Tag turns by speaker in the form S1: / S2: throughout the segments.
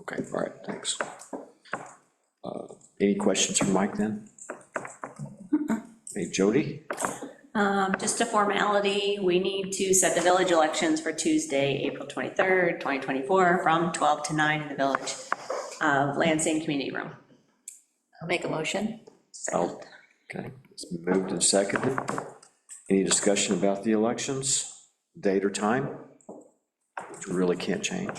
S1: Okay, all right, thanks. Uh, Any questions for Mike then? Hey, Jody?
S2: Um, Just a formality, we need to set the village elections for Tuesday, April 23rd, 2024, from 12 to 9 in the Village of Lansing Community Room.
S3: I'll make a motion.
S1: Oh, Okay, it's moved and seconded. Any discussion about the elections, date or time? Which we really can't change.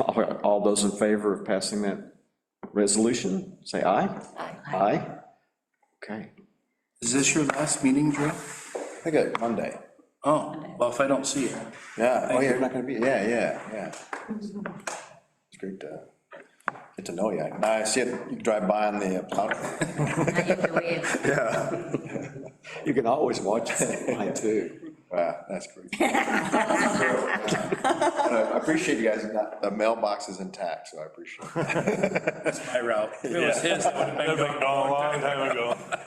S1: All all those in favor of passing that resolution, say aye.
S3: Aye.
S1: Aye? Okay,
S4: Is this your last meeting, Drew?
S5: I got Monday.
S4: Oh, well, if I don't see you.
S5: Yeah, oh, yeah, you're not gonna be, yeah, yeah, yeah. It's great to get to know you. Now I see it, you drive by on the uh, plow.
S3: Now you can wave.
S1: you can always watch it online, too.
S5: Wow, that's great. I appreciate you guys, not- the mailbox is intact, so I appreciate it.
S4: My route. If it was his, I would have been
S6: That was
S4: going.
S6: like "Oh, a long time ago,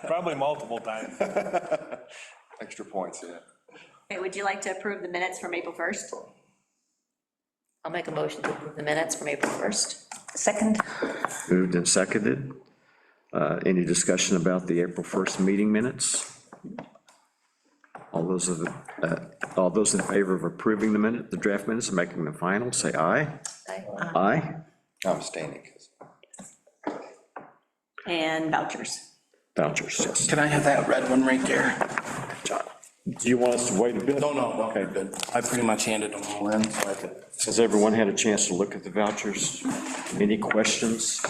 S6: probably multiple times.
S5: Extra points, yeah.
S2: Okay, would you like to approve the minutes from April 1st?
S3: I'll make a motion to approve the minutes from April 1st.
S7: Second,
S1: Moved and seconded. Uh, Any discussion about the April 1st meeting minutes? All those of, uh, all those in favor of approving the minute, the draft minutes and making them final, say aye.
S3: Aye.
S1: Aye.
S5: I'm abstaining, because
S2: And vouchers.
S1: Vouchers, yes.
S4: Can I have that red one right there?
S1: Do you want us to wait a bit?
S4: No, no, no, you're good. I pretty much handed them all in, so I could.
S1: Has everyone had a chance to look at the vouchers? Any questions?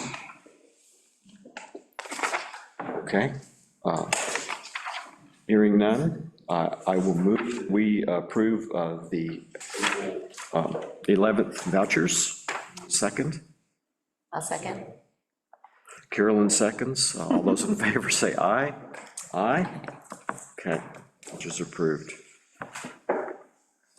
S1: Okay. uh, Hearing none, I I will move, we approve of the um, 11th vouchers. Second,
S3: I'll second.
S1: Carolyn seconds. Uh, All those in favor say aye. Aye? Okay, vouchers approved.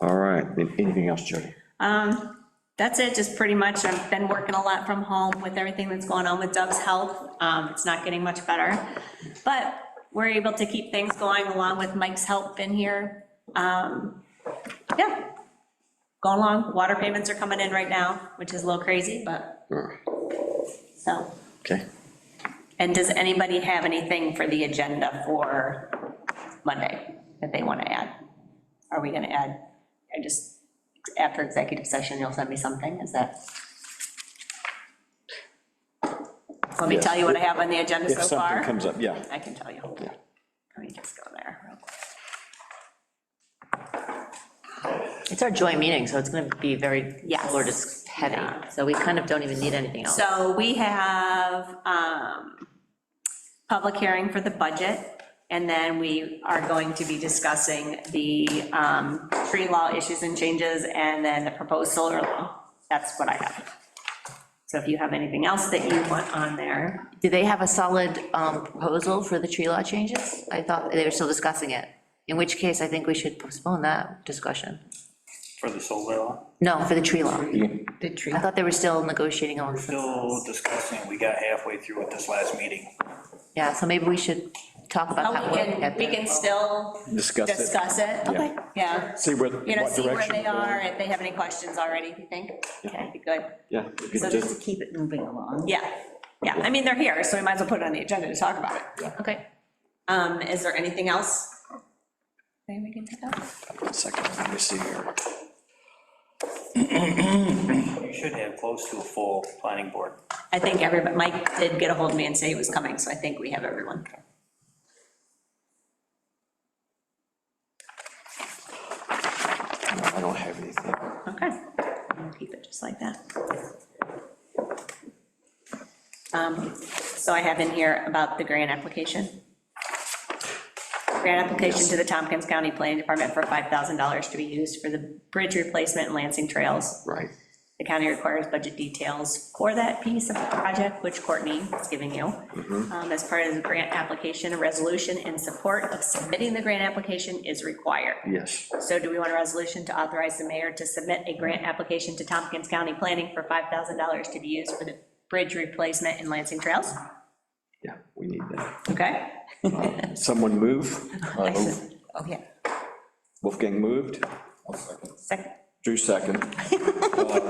S1: All right, anything else, Jody?
S2: Um, That's it, just pretty much, I've been working a lot from home with everything that's going on with Doug's health. Um, It's not getting much better, but we're able to keep things going along with Mike's help in here. Um, Yeah, going along, water payments are coming in right now, which is a little crazy, but, so.
S1: Okay.
S2: And does anybody have anything for the agenda for Monday that they want to add? Are we going to add, I just, after executive session, you'll send me something, is that? Let me tell you what I have on the agenda
S1: If
S2: so
S1: something
S2: far.
S1: comes up, yeah.
S2: I can tell you. Let me just go there real quick.
S3: It's our joint meeting, so it's going to be very
S2: Yes.
S3: lower just heavy. So we kind of don't even need anything else.
S2: So we have um, public hearing for the budget, and then we are going to be discussing the um, tree law issues and changes, and then the proposed solar law. That's what I have. So if you have anything else that you want on there,
S3: Do they have a solid um, proposal for the tree law changes? I thought they were still discussing it, in which case I think we should postpone that discussion.
S8: For the solar law,
S3: No, for the tree law.
S7: the tree.
S3: I thought they were still negotiating on,
S8: still discussing, we got halfway through with this last meeting.
S3: yeah, so maybe we should talk about
S2: Oh,
S3: that.
S2: we
S3: when
S2: can,
S3: get
S2: we
S3: there.
S2: can still
S1: Discuss it.
S2: discuss it.
S1: Okay.
S2: Yeah,
S1: See what, what
S2: you know, see where
S1: direction.
S2: they are, if they have any questions already, you think? Okay, good.
S1: Yeah. if you
S2: So
S1: just-
S7: Just to keep it moving along.
S2: Yeah, yeah, I mean, they're here, so we might as well put it on the agenda to talk about it.
S3: Okay.
S2: Um, is there anything else? Anything we can pick up?
S1: One second, let me see here.
S8: You should have close to a full planning board.
S2: I think everybody, Mike did get a hold of me and say he was coming, so I think we have everyone.
S1: No, I don't have anything.
S2: Okay, we'll keep it just like that. Um, So I have in here about the grant application. Grant application to the Tompkins County Planning Department for $5,000 to be used for the bridge replacement and Lansing Trails.
S1: Right.
S2: The county requires budget details for that piece of the project, which Courtney is giving you. Um, As part of the grant application, a resolution in support of submitting the grant application is required.
S1: Yes.
S2: So do we want a resolution to authorize the mayor to submit a grant application to Tompkins County Planning for $5,000 to be used for the bridge replacement in Lansing Trails?
S1: Yeah, we need that. Um,
S2: Okay?
S1: Someone move. Uh,
S7: I said, Oh, yeah,
S1: Wolfgang moved.
S7: second.
S1: Drew second.